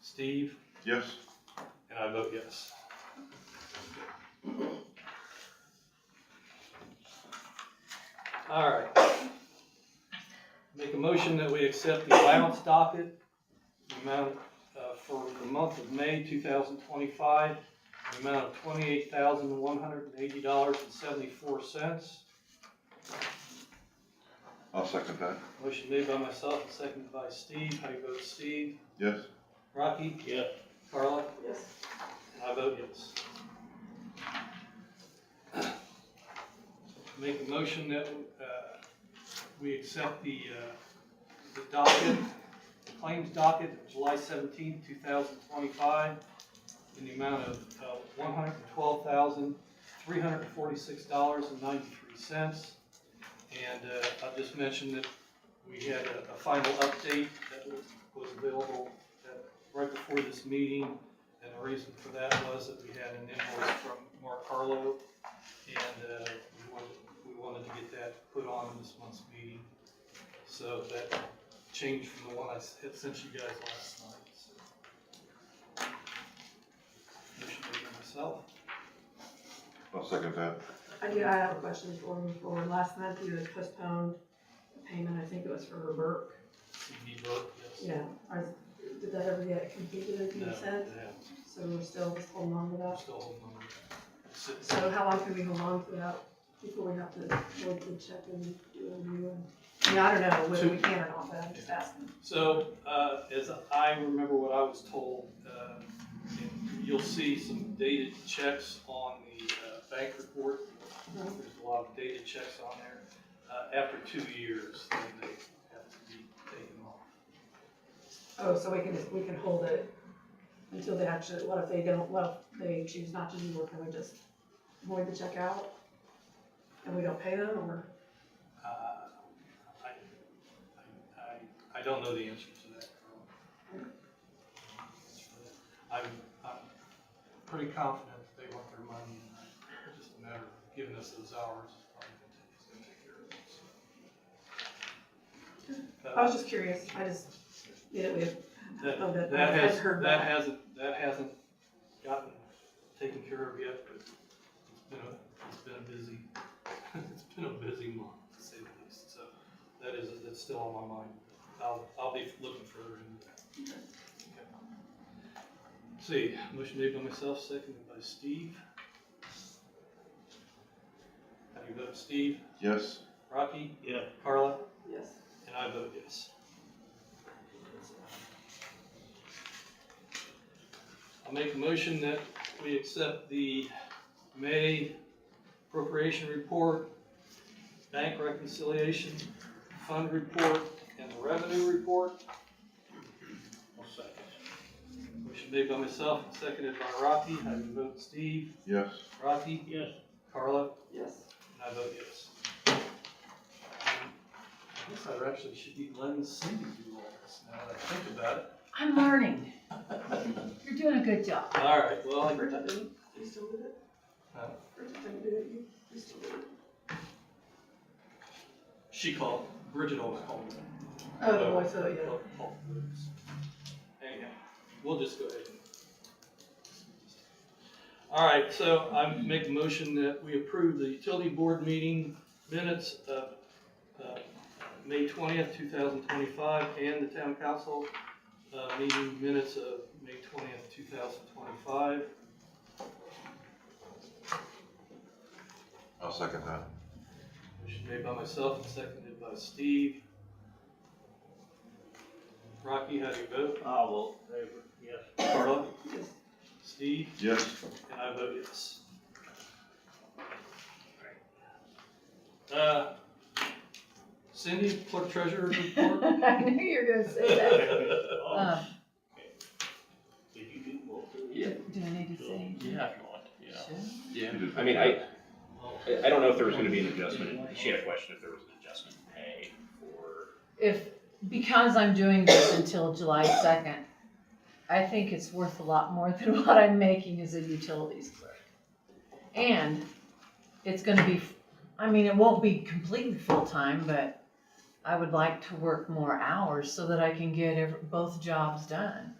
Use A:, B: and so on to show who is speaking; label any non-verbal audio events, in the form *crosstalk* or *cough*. A: Steve,
B: Yes.
A: and I vote yes. All right. Make a motion that we accept the allowance docket, the amount uh, for the month of May two thousand twenty-five, the amount of twenty-eight thousand one hundred and eighty dollars and seventy-four cents.
B: I'll second that.
A: Motion made by myself and seconded by Steve. How do you vote, Steve?
B: Yes.
A: Rocky? Yeah. Carla?
C: Yes.
A: I vote yes. Make a motion that, uh, we accept the, uh, the docket, the claims docket of July seventeenth, two thousand twenty-five in the amount of, uh, one hundred and twelve thousand, three hundred and forty-six dollars and ninety-three cents. And, uh, I just mentioned that we had a, a final update that was, was available uh, right before this meeting. And the reason for that was that we had an invoice from Mark Harlow, and, uh, we wanted, we wanted to get that put on in this month's meeting. So that changed from the one I s- had sent you guys last night, so. Motion made by myself.
B: I'll second that.
C: I do, I have a question before we move forward. Last month you had postponed a payment, I think it was for her Burke.
A: CB vote, yes.
C: Yeah. Are- Did that ever get completed as you
A: No,
C: said?
A: yeah,
C: So we're still just holding on to
A: I'm
C: that?
A: still holding on. It's- it's-
C: So how long can we hold on to that before we have to vote the check and do a new one? I mean, I don't know whether we can or not, but I'm just asking.
A: So, uh, as I remember what I was told, uh, and you'll see some dated checks on the, uh, bank report. There's a lot of dated checks on there. Uh, after two years, then they have to be taken off.
C: Oh, so we can, we can hold it until they actually, what if they don't, what if they choose not to do work, can we just void the check out? And we don't pay them, or?
A: Uh, I, I, I, I don't know the answer to that. Carl. I'm, I'm pretty confident that they want their money, and it's just a matter of giving us those hours. is probably gonna take- it's gonna take care
C: I
A: of it,
C: was
A: so.
C: just curious, I just, yeah, we have, oh,
A: That,
C: that-
A: that
C: I've
A: has,
C: heard
A: that
C: that.
A: hasn't, that hasn't gotten taken care of yet, but it's been a, it's been a busy, *laughs* it's been a busy month, to say the least, so that is, that's still on my mind. I'll, I'll be looking further into that. Okay. See, motion made by myself, seconded by Steve. How do you vote, Steve?
B: Yes.
A: Rocky? Yeah. Carla?
C: yes.
A: And I vote yes. I'll make a motion that we accept the May appropriation report, bank reconciliation, fund report, and the revenue report. Motion made by myself, and seconded by Rocky. How do you vote, Steve?
B: Yes.
A: Rocky? Yes. Carla?
C: Yes.
A: And I vote yes. I guess I actually should be letting Cindy do all this now that I think about it.
D: I'm learning. You're doing a good job. *laughs*
A: All right, well, I-
C: Bridget did it, you still did it?
A: Huh?
C: Bridget didn't do it, you, you still did it?
A: she called, Bridget always called me.
C: Oh, the voice, oh, yeah.
A: Called- called the moves. Anyhow, we'll just go ahead. and- All right, so I make a motion that we approve the utility board meeting minutes of, uh, May twentieth, two thousand twenty-five, and the town council, uh, meeting minutes of May twentieth, two thousand twenty-five.
B: I'll second that.
A: Motion made by myself and seconded by Steve. Rocky, how do you vote?
E: I will favor, yes.
A: *laughs* Carla?
C: Yes.
A: Steve?
B: Yes.
A: And I vote yes. Uh, Cindy, clerk treasurer
D: *laughs*
A: report?
D: I knew you were gonna say
E: *laughs*
D: that.
E: Oh,
D: Um,
E: Did you do both of
F: Yeah.
D: do do I need to say? anything?
E: Yeah, if you want, yeah.
D: Should I?
F: Yeah,
B: You did
F: I mean, I,
A: Well,
F: I I don't know if there was gonna be an adjustment, she had a question if there was an adjustment pay for,
D: If, because I'm doing this until July second, I think it's worth a lot more than *laughs* what I'm making as a utilities clerk. And it's gonna be, I mean, it won't be completely full-time, but I would like to work more hours so that I can get ev- both jobs done.